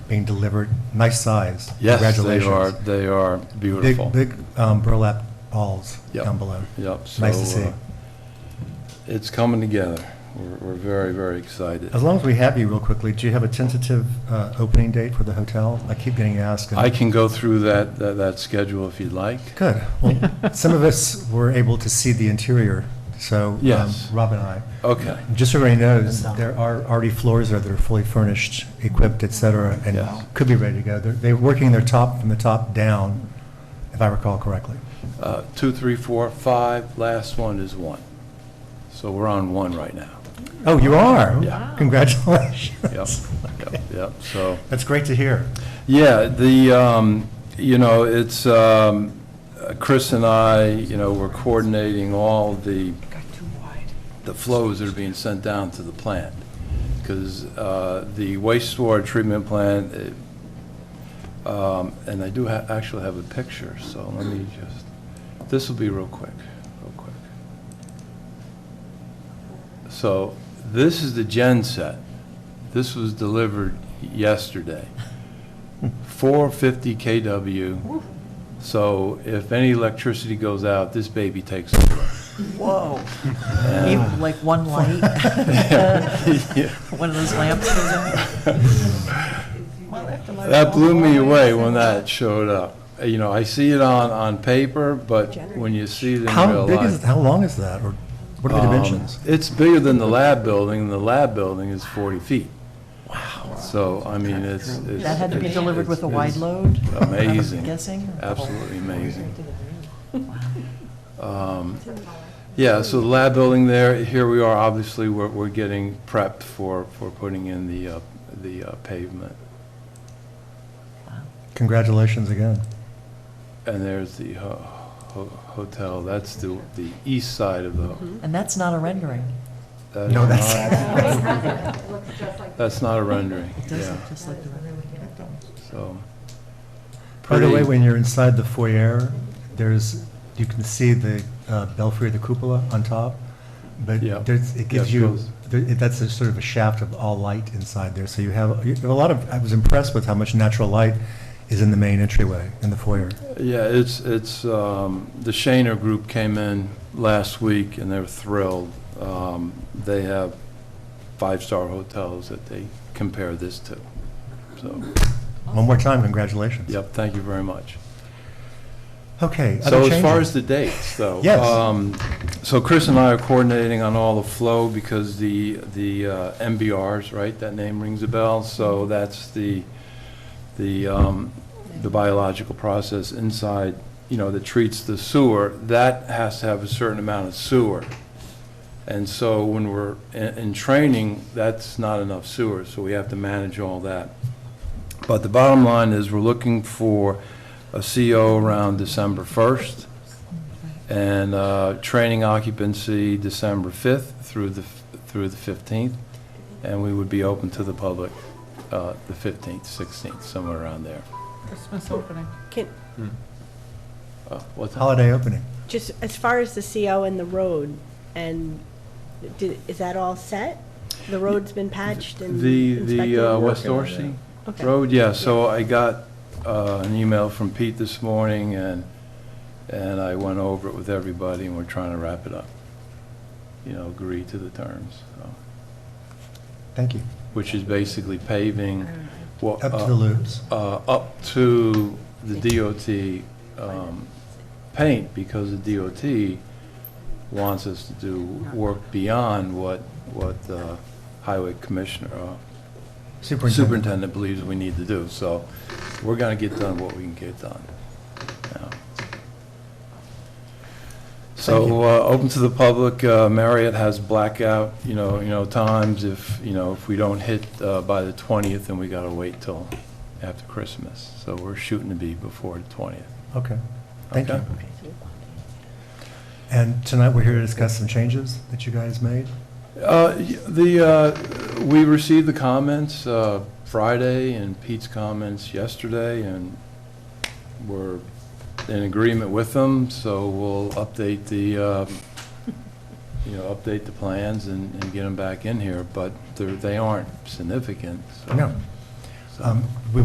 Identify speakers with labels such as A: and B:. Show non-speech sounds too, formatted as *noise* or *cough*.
A: being delivered, nice size.
B: Yes, they are,
A: Congratulations.
B: they are beautiful.
A: Big, big um, burlap balls
B: Yep.
A: down below.
B: Yep. so,
A: Nice to see.
B: uh, It's coming together. We're, we're very, very excited.
A: As long as we have you real quickly, do you have a tentative uh, opening date for the hotel? I keep getting asked. and-
B: I can go through that, that, that schedule if you'd like.
A: Good.
B: *laughs*
A: Well, some of us were able to see the interior, so. um,
B: Yes.
A: Rob and I.
B: Okay.
A: Just so everybody knows, there are already floors there that are fully furnished, equipped, et cetera, and
B: Yes.
A: could be ready to go. They're, they're working their top, from the top down, if I recall correctly.
B: Uh, Two, three, four, five, last one is one. So we're on one right now.
A: Oh, you are?
B: Yeah.
A: Congratulations. *laughs*
B: Yep, yep, yep, so.
A: That's great to hear.
B: Yeah, the, um, you know, it's, um, uh, Chris and I, you know, we're coordinating all the, the flows that are being sent down to the plant. Because the wastewater treatment plant, it, um, and I do ha- actually have a picture, so let me just, this will be real quick, real quick. So this is the gen set. This was delivered yesterday. 450 KW. So if any electricity goes out, this baby takes over.
C: Whoa.
B: Uh,
C: Even like
B: *laughs*
C: one light, *laughs*
B: Yeah.
C: one of those lamps goes on.
B: That blew me away when that showed up. You know, I see it on, on paper, but when you see it in
A: How
B: real
A: big is,
B: life.
A: how long is that, or what are the
B: um,
A: dimensions?
B: It's bigger than the lab building, and the lab building is 40 feet. Wow. So, I mean, it's. it's-
C: That had to be
B: it's-
C: delivered with a
B: it's-
C: wide
B: it's
C: load?
B: Amazing.
C: *laughs* I'm guessing?
B: Absolutely amazing. Um, Yeah, so the lab building there, here we are, obviously, we're, we're getting prepped for, for putting in the, uh, the uh, pavement.
A: Congratulations again.
B: And there's the ho- ho- hotel, that's the, the east side of the.
C: And that's not a rendering.
B: that
A: No,
B: is
A: that's- *laughs*
B: not- That's not a rendering,
C: It
B: yeah,
C: doesn't, just like the rendering.
B: so.
A: *laughs* By the way,
B: Pretty-
A: when you're inside the foyer, there's, you can see the uh, belfry, the cupola on top, but
B: Yeah.
A: there's, it gives
B: Yeah,
A: you,
B: those-
A: there- it- that's a sort of a shaft of all light inside there, so you have, you have a lot of, I was impressed with how much natural light is in the main entryway, in the foyer.
B: Yeah, it's, it's, um, the Shaner Group came in last week and they're thrilled. Um, They have five-star hotels that they compare this to. So,
A: One more time, congratulations.
B: yep, thank you very much.
A: Okay. other
B: So as far
A: changes?
B: as the dates, though.
A: Yes.
B: um, So Chris and I are coordinating on all the flow because the, the uh, MBRs, right, that name rings a bell. So that's the, the, um, the biological process inside, you know, that treats the sewer. That has to have a certain amount of sewer. And so when we're in, in training, that's not enough sewer, so we have to manage all that. But the bottom line is, we're looking for a CO around December 1st, and uh, training occupancy December 5th through the, through the 15th, and we would be open to the public uh, the 15th, 16th, somewhere around there.
C: Christmas opening.
D: Can,
B: Uh, What's that?
A: Holiday opening.
D: just as far as the CO and the road, and did, is that all set? The road's been patched and
B: The,
D: inspected?
B: the uh, West Dorsey?
D: Okay.
B: Road, yeah, so I got uh, an email from Pete this morning, and, and I went over it with everybody, and we're trying to wrap it up. You know, agree to the terms, so,
A: Thank you.
B: which is basically paving. Up
A: Up to the loops.
B: uh, Up to the DOT um, paint, because the DOT wants us to do work beyond what, what the highway commissioner, uh,
A: Superintendent.
B: superintendent believes we need to do, so we're gonna get done what we can get done. Yeah.
A: Thank
B: So,
A: you.
B: uh, open to the public, uh, Marriott has blackout, you know, you know, times, if, you know, if we don't hit uh, by the 20th, then we gotta wait till after Christmas, so we're shooting to be before the 20th.
A: Okay. Thank you.
B: Okay.
A: And tonight, we're here to discuss some changes that you guys made.
B: Uh, y- The, uh, we received the comments uh, Friday and Pete's comments yesterday, and we're in agreement with them, so we'll update the, uh, you know, update the plans and and get them back in here, but they're- they aren't significant, so.
A: No.
B: so-
A: Um, We